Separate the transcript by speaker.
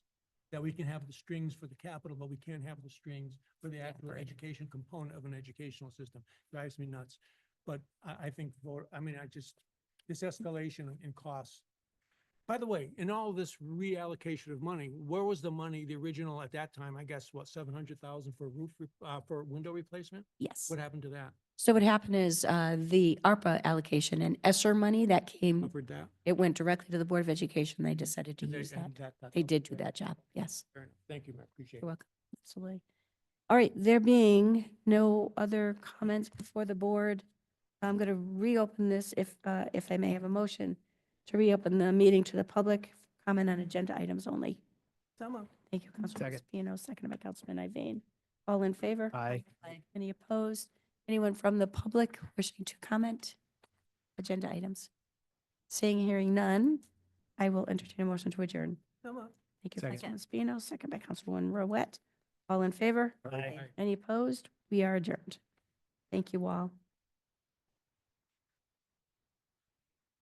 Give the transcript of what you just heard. Speaker 1: that we can have the strings for the capital, but we can't have the strings for the actual education component of an educational system. Drives me nuts. But I, I think, for- I mean, I just, this escalation in costs. By the way, in all this reallocation of money, where was the money, the original at that time, I guess, what, seven hundred thousand for roof, re- uh, for window replacement?
Speaker 2: Yes.
Speaker 1: What happened to that?
Speaker 2: So what happened is uh, the ARPA allocation and ESSER money that came,
Speaker 1: Covered that?
Speaker 2: it went directly to the Board of Education. They decided to
Speaker 1: Did they-
Speaker 2: use that.
Speaker 1: and that- that's
Speaker 2: They
Speaker 1: all.
Speaker 2: did do
Speaker 1: Fair
Speaker 2: that job. Yes.
Speaker 1: Fair enough. Thank you, Mayor. Appreciate
Speaker 2: You're
Speaker 1: it.
Speaker 2: welcome. Absolutely. All right, there being no other comments before the board, I'm going to reopen this if, uh, if I may have a motion to reopen the meeting to the public, comment on agenda items only. Thank you, Councilman Spino, seconded by Councilman Iveyne. All in favor?
Speaker 3: Aye.
Speaker 2: Any opposed? Anyone from the public wishing to comment? Agenda items. Seeing, hearing none, I will entertain a motion to adjourn. Thank you,
Speaker 3: Second.
Speaker 2: Councilman Spino, second by Councilwoman Rouette. All in favor?
Speaker 3: Aye.
Speaker 2: Any opposed? We are adjourned. Thank you all.